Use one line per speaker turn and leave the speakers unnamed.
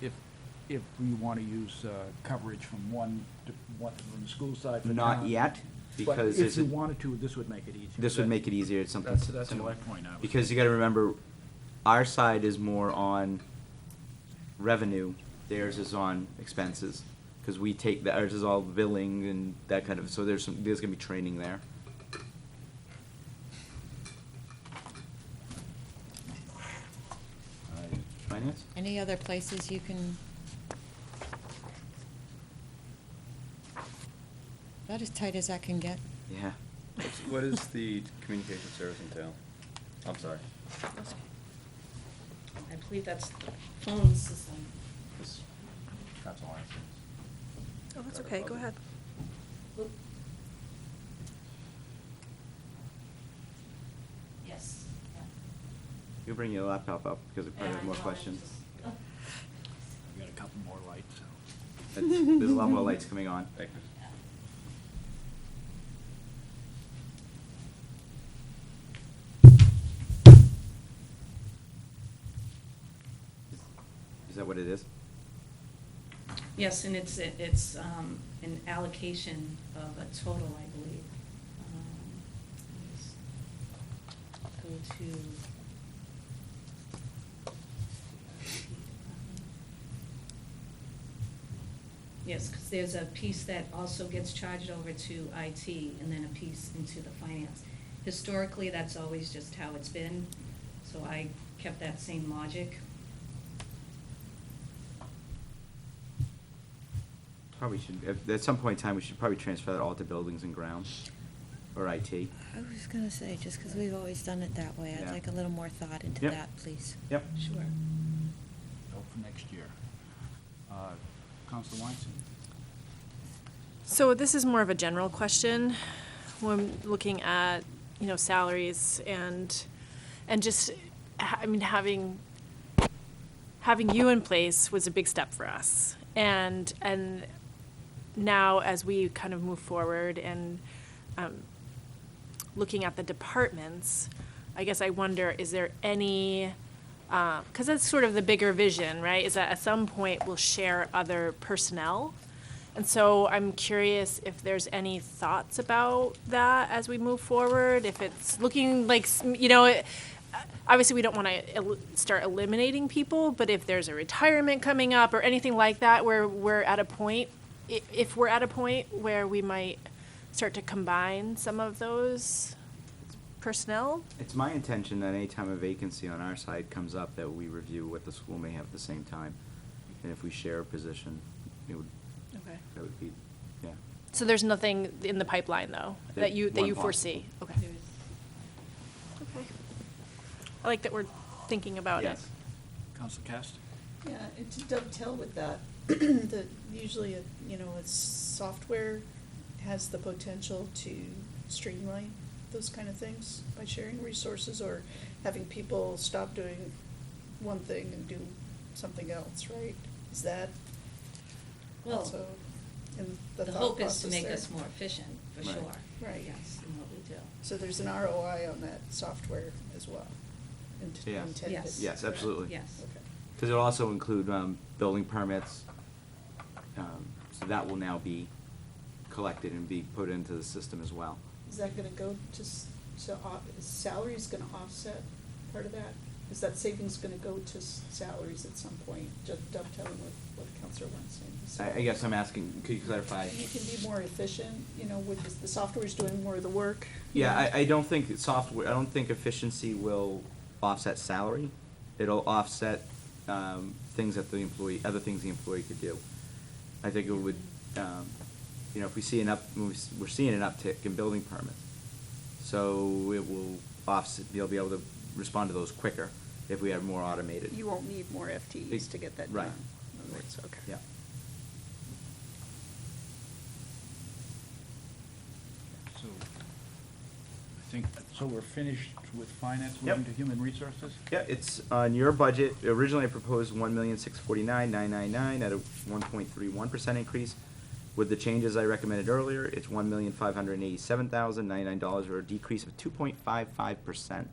if, if we want to use uh, coverage from one, to- one from the school side for
Not
town.
yet, because
But
there's
if you
a-
wanted to, this would make it easier.
this would make it easier, it's something
That's- that's
similar.
my point, I was-
Because you gotta remember, our side is more on revenue, theirs is on expenses. Cause we take, the- ours is all billing and that kind of, so there's some, there's gonna be training there. Alright, Finance?
Any other places you can? About as tight as I can get.
Yeah.
What does the communication service entail? I'm sorry.
I believe that's the phone system.
This- That's all I see.
Oh, that's okay, go ahead.
Yes.
You bring your laptop up, because I probably have more questions.
I've got a couple more lights, so.
It's- There's a lot more lights coming on.
Thank you.
Is that what it is?
Yes, and it's, it's um, an allocation of a total, I believe. Um, let's Go to. Yes, because there's a piece that also gets charged over to IT and then a piece into the finance. Historically, that's always just how it's been, so I kept that same logic.
Probably should, if- at some point in time, we should probably transfer that all to buildings and grounds, or IT.
I was gonna say, just because we've always done it that way, I'd
Yeah.
like a little more thought into
Yep.
that, please.
Yep.
Sure.
Hope for next year. Uh, Counselor Weinstein?
So this is more of a general question, when looking at, you know, salaries and, and just, ha- I mean, having, having you in place was a big step for us. And, and now as we kind of move forward and, um, looking at the departments, I guess I wonder, is there any, because that's sort of the bigger vision, right? Is that at some point we'll share other personnel. And so I'm curious if there's any thoughts about that as we move forward, if it's looking like, s- you know, it- obviously we don't want to el- start eliminating people, but if there's a retirement coming up or anything like that where we're at a point, i- if we're at a point where we might start to combine some of those personnel,
It's my intention that anytime a vacancy on our side comes up, that we review what the school may have at the same time. And if we share a position, it would,
okay.
that would be, yeah.
So there's nothing in the pipeline, though,
There-
that you, that
one
you
possible.
foresee? Okay. Okay. I like that we're thinking about it.
Yes.
Counselor Cast?
Yeah, and to dovetail with that, that usually, it- you know, it's software has the potential to streamline those kind of things by sharing resources or having people stop doing one thing and do something else, right? Is that
Well,
also in the
The
thought
hope is
process
to make
there?
us more efficient, for
Right.
sure.
Right.
Yes, in what we do.
So there's an ROI on that software as well, int-
Yes.
intended.
Yes.
Yes,
correct?
absolutely.
Yes.
Okay.
Because it'll also include, um, building permits. Um, So that will now be collected and be put into the system as well.
Is that gonna go to, s- so, off- is salaries gonna offset part of that? Is that savings gonna go to s- salaries at some point, just dovetailing with what Counselor Weinstein was
I,
saying?
I guess I'm asking, could you clarify?
You can be more efficient, you know, with, this- the software's doing more of the work. you
Yeah,
know?
I, I don't think that software, I don't think efficiency will offset salary. It'll offset, um, things that the employee, other things the employee could do. I think it would, um, you know, if we see an up, we're s- we're seeing an uptick in building permits. So it will offset, they'll be able to respond to those quicker if we have more automated.
You won't need more FTEs to get that done.
Right.
in other words, okay.
Yeah.
So, I think, so we're finished with finance,
Yep.
moving to human resources?
Yeah, it's on your budget. Originally, I proposed one million, six forty-nine, nine nine nine at a one point three one percent increase. With the changes I recommended earlier, it's one million, five hundred and eighty-seven thousand, ninety-nine dollars, or a decrease of two point five five percent.